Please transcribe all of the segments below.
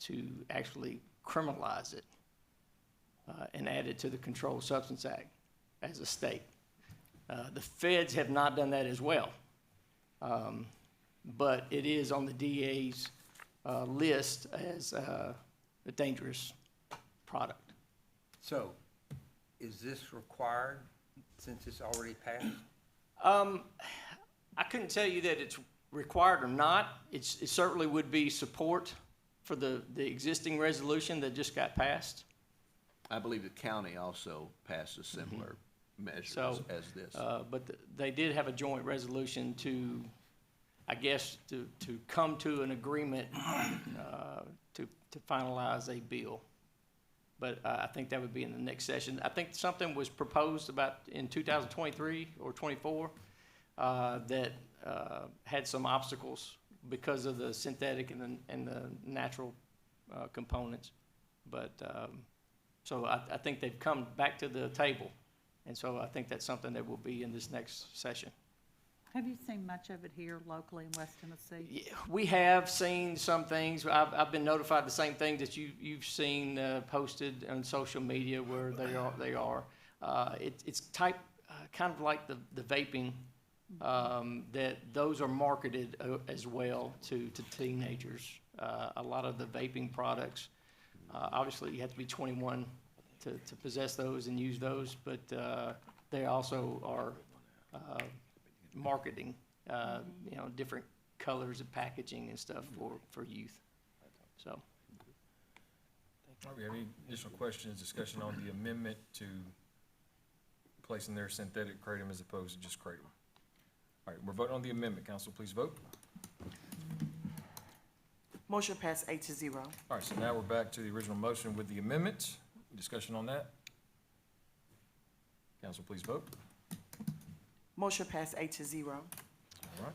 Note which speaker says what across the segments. Speaker 1: to actually criminalize it uh, and add it to the Controlled Substance Act as a state. Uh, The feds have not done that as well. Um, But it is on the DA's uh, list as uh, a dangerous product.
Speaker 2: So, is this required since it's already passed?
Speaker 1: Um, I couldn't tell you that it's required or not. It's, it certainly would be support for the, the existing resolution that just got passed.
Speaker 3: I believe the county also passed a similar measure
Speaker 1: So,
Speaker 3: as this.
Speaker 1: Uh, but th- they did have a joint resolution to, I guess, to, to come to an agreement, uh, to, to finalize a bill. But uh, I think that would be in the next session. I think something was proposed about in two thousand twenty-three or twenty-four, uh, that, uh, had some obstacles because of the synthetic and the, and the natural, uh, components. But, um, so I, I think they've come back to the table. And so I think that's something that will be in this next session.
Speaker 4: Have you seen much of it here locally in West Tennessee?
Speaker 1: Yeah, We have seen some things, I've, I've been notified the same thing that you, you've seen uh, posted on social media where they are, they are. Uh, it, it's type, uh, kind of like the, the vaping, um, that those are marketed uh, as well to, to teenagers. Uh, a lot of the vaping products, uh, obviously you have to be twenty-one to, to possess those and use those, but, uh, they also are, uh, marketing, uh, you know, different colors of packaging and stuff for, for youth. So,
Speaker 5: All right, we have any additional questions, discussion on the amendment to placing their synthetic kratom as opposed to just kratom? All right, we're voting on the amendment. Council, please vote.
Speaker 6: Motion passed eight to zero.
Speaker 5: All right, so now we're back to the original motion with the amendment. Discussion on that? Council, please vote.
Speaker 6: Motion passed eight to zero.
Speaker 5: All right.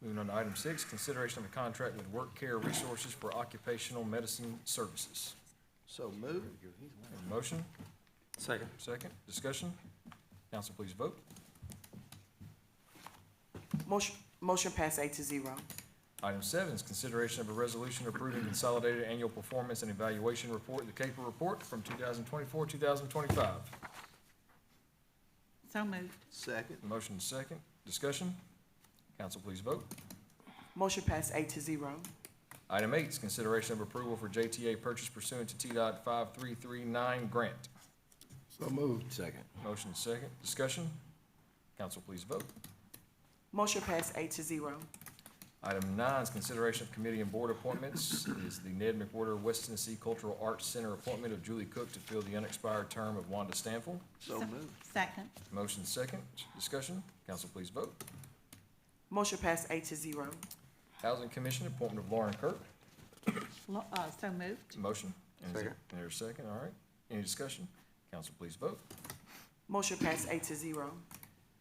Speaker 5: Moving on to item six, consideration of a contract with Work Care Resources for Occupational Medicine Services.
Speaker 3: So move.
Speaker 5: Have a Motion? Second. Second. Discussion? Council, please vote.
Speaker 6: Motion, motion passed eight to zero.
Speaker 5: Item seven is consideration of a resolution approving consolidated annual performance and evaluation report, the CAPER report from 2024, 2025.
Speaker 4: So moved.
Speaker 3: Second.
Speaker 5: Motion is second. Discussion? Council, please vote.
Speaker 6: Motion passed eight to zero.
Speaker 5: Item eight is consideration of approval for JTA purchase pursuant to T-Dot 5339 grant.
Speaker 3: So moved. Second.
Speaker 5: Motion is second. Discussion? Council, please vote.
Speaker 6: Motion passed eight to zero.
Speaker 5: Item nine is consideration of committee and board appointments. It Is the Ned McWhorter West Tennessee Cultural Arts Center appointment of Julie Cook to fill the unexpired term of Wanda Stanfield.
Speaker 3: So moved.
Speaker 4: Second.
Speaker 5: Motion second, discussion. Council, please vote.
Speaker 6: Motion passed eight to zero.
Speaker 5: Housing Commission, appointment of Lauren Kirk.
Speaker 4: Lo- uh, So moved.
Speaker 5: Motion. And is it-
Speaker 3: Second.
Speaker 5: and There's a second, all right. Any discussion? Council, please vote.
Speaker 6: Motion passed eight to zero.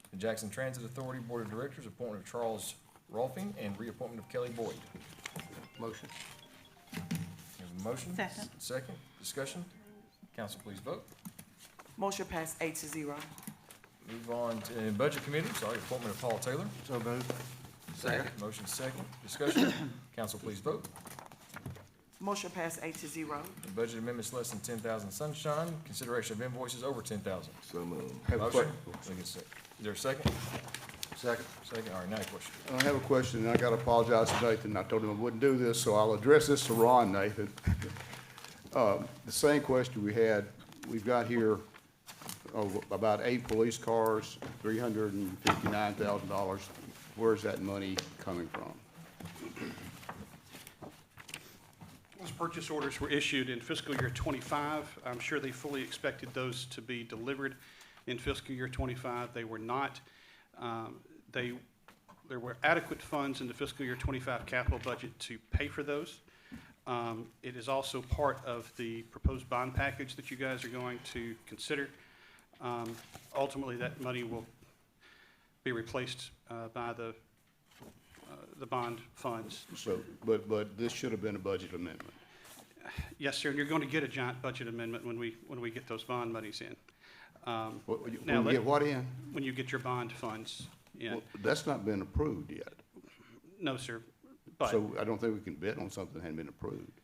Speaker 5: The Jackson Transit Authority Board of Directors, appointment of Charles Rolfing and reappointment of Kelly Boyd.
Speaker 3: Motion.
Speaker 5: We have a motion.
Speaker 4: Second.
Speaker 5: Second, discussion. Council, please vote.
Speaker 6: Motion passed eight to zero.
Speaker 5: Move on to Budget Committee, sorry, appointment of Paul Taylor.
Speaker 3: So moved. Second.
Speaker 5: Motion second, discussion. Council, please vote.
Speaker 6: Motion passed eight to zero.
Speaker 5: The Budget amendments less than ten thousand sunshine, consideration of invoices over ten thousand.
Speaker 3: So moved.
Speaker 7: Have a
Speaker 5: Motion.
Speaker 7: question.
Speaker 5: Look at sec- Is there a second?
Speaker 7: Second.
Speaker 5: Second, all right, now your question.
Speaker 7: I have a question, and I gotta apologize to Nathan. I told him I wouldn't do this, so I'll address this to Ron, Nathan. Um, The same question we had, we've got here oh, about eight police cars, three hundred and fifty-nine thousand dollars. Where's that money coming from?
Speaker 8: Those purchase orders were issued in fiscal year '25. I'm sure they fully expected those to be delivered in fiscal year '25. They were not. Um, They, there were adequate funds in the fiscal year '25 capital budget to pay for those. Um, It is also part of the proposed bond package that you guys are going to consider. Um, Ultimately, that money will be replaced uh, by the, uh, the bond funds.
Speaker 7: So, but, but this should have been a budget amendment.
Speaker 8: Yes, sir, and you're going to get a giant budget amendment when we, when we get those bond monies in. Um,
Speaker 7: What- you- When
Speaker 8: Now,
Speaker 7: you
Speaker 8: let-
Speaker 7: get what in?
Speaker 8: When you get your bond funds in.
Speaker 7: Well, That's not been approved yet.
Speaker 8: No, sir, but,
Speaker 7: So I don't think we can bet on something that hadn't been approved.